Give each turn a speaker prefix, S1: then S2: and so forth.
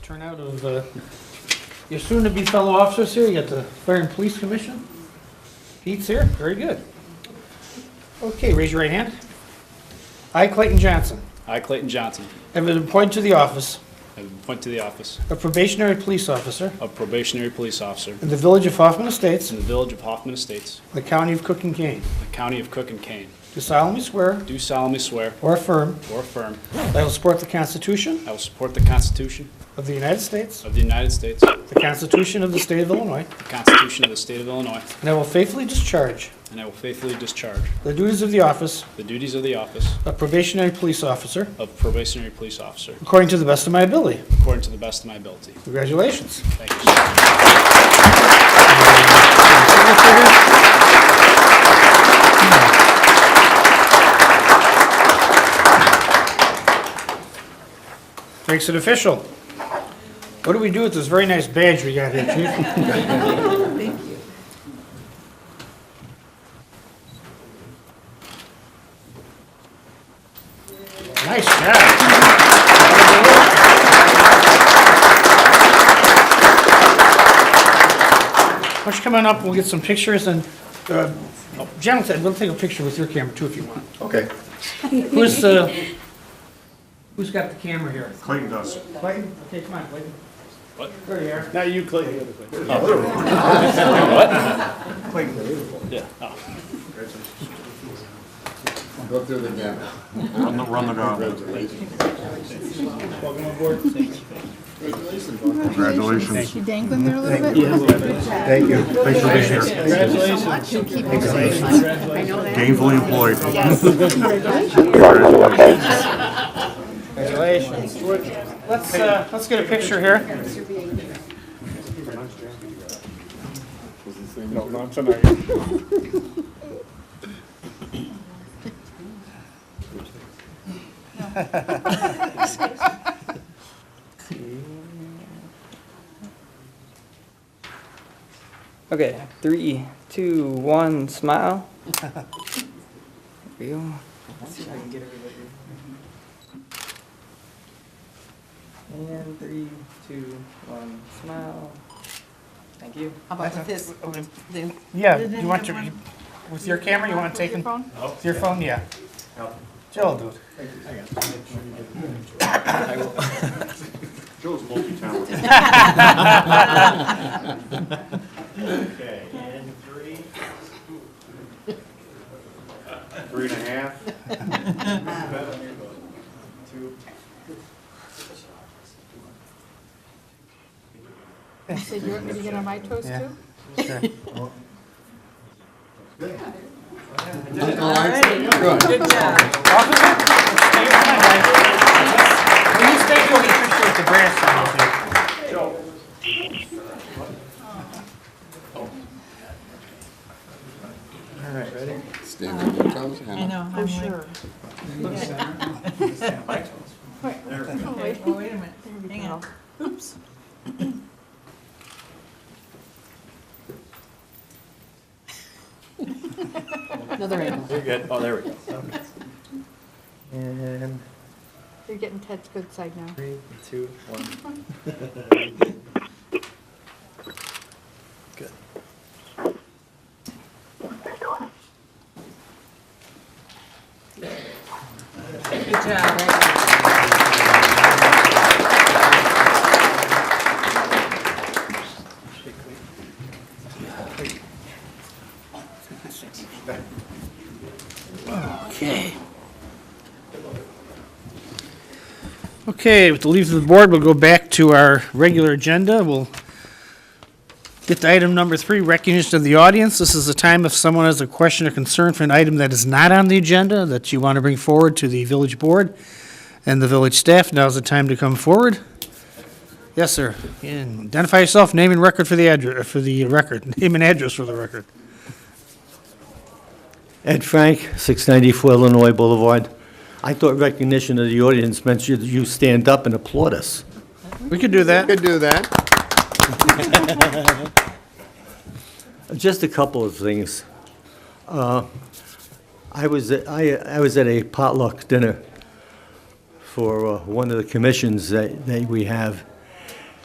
S1: turnout of uh, your soon-to-be fellow officers here. You got the Fire and Police Commission. Pete's here, very good. Okay, raise your right hand. I, Clayton Johnson,
S2: I, Clayton Johnson,
S1: have been appointed to the office
S2: have been appointed to the office
S1: of probationary police officer
S2: of probationary police officer
S1: in the village of Hoffman Estates,
S2: in the village of Hoffman Estates,
S1: the county of Cook and Kane,
S2: the county of Cook and Kane.
S1: to solemnly swear
S2: Do solemnly swear
S1: or affirm
S2: or affirm
S1: that I will support the Constitution
S2: I will support the Constitution
S1: of the United States,
S2: of the United States, the
S1: the Constitution of the State of Illinois,
S2: Constitution of the State of Illinois,
S1: and I will faithfully discharge
S2: and I will faithfully discharge
S1: the duties of the office
S2: the duties of the office
S1: of probationary police officer
S2: of probationary police officer
S1: according to the best of my ability.
S2: according to the best of my ability.
S1: Congratulations.
S2: Thank you, sir.
S1: Makes it official. What do we do with this very nice badge we got here, chief?
S3: Thank you.
S1: Nice job. Why don't you come on up, we'll get some pictures and, uh, Jonathan, we'll take a picture with your camera too if you want.
S4: Okay.
S1: Who's, uh, who's got the camera here?
S4: Clayton does.
S1: Clayton? Okay, come on, Clayton.
S2: What?
S1: There you are.
S2: Now you, Clayton. Yeah. Oh,
S4: Go through the gamut.
S2: Welcome aboard. Thank you.
S4: Congratulations.
S3: She dangling there a little bit?
S4: Thank you. Thanks for being here.
S2: Congratulations.
S3: She'll keep on saying, I know that.
S4: Gainfully employed.
S3: Yes.
S1: Congratulations. Let's, uh, let's get a picture here.
S4: No, not tonight.
S5: Okay, three, two, one, smile. There we go. And three, two, one, smile. Thank you.
S3: How about with this? The-
S1: Yeah, you want your, with your camera, you want to take,
S3: Your
S1: an-
S3: phone?
S1: with your phone, yeah. Jill will do it.
S4: Joe's multi-talented.
S6: Okay, and three,
S4: Three and a half.
S6: two,
S3: So you're, are you gonna my toast
S1: Yeah.
S3: too? Good job.
S1: Officer, stay behind, guys. When you stay, you'll appreciate the grass. you know.
S7: Stand up, comes
S3: I know. I'm sure. Oh, wait, oh, wait a minute. Hang on. Oops. Another angle.
S2: You're good. Oh, there we go.
S5: And
S3: You're getting Ted's good side now.
S5: three, two, one.
S3: Good job.
S1: Okay, with the leave of the board, we'll go back to our regular agenda. We'll get to item number three, recognition of the audience. This is the time if someone has a question or concern for an item that is not on the agenda that you want to bring forward to the village board and the village staff, now's the time to come forward. Yes, sir. And Identify yourself, name and record for the address, for the record, name and address for the record.
S6: Ed Frank, 694 Illinois Boulevard. I thought recognition of the audience meant you- you stand up and applaud us.
S1: We could do that.
S7: Could do that.
S6: Just a couple of things. Uh, I was, at- I I was at a potluck dinner for uh, one of the commissions that that we have,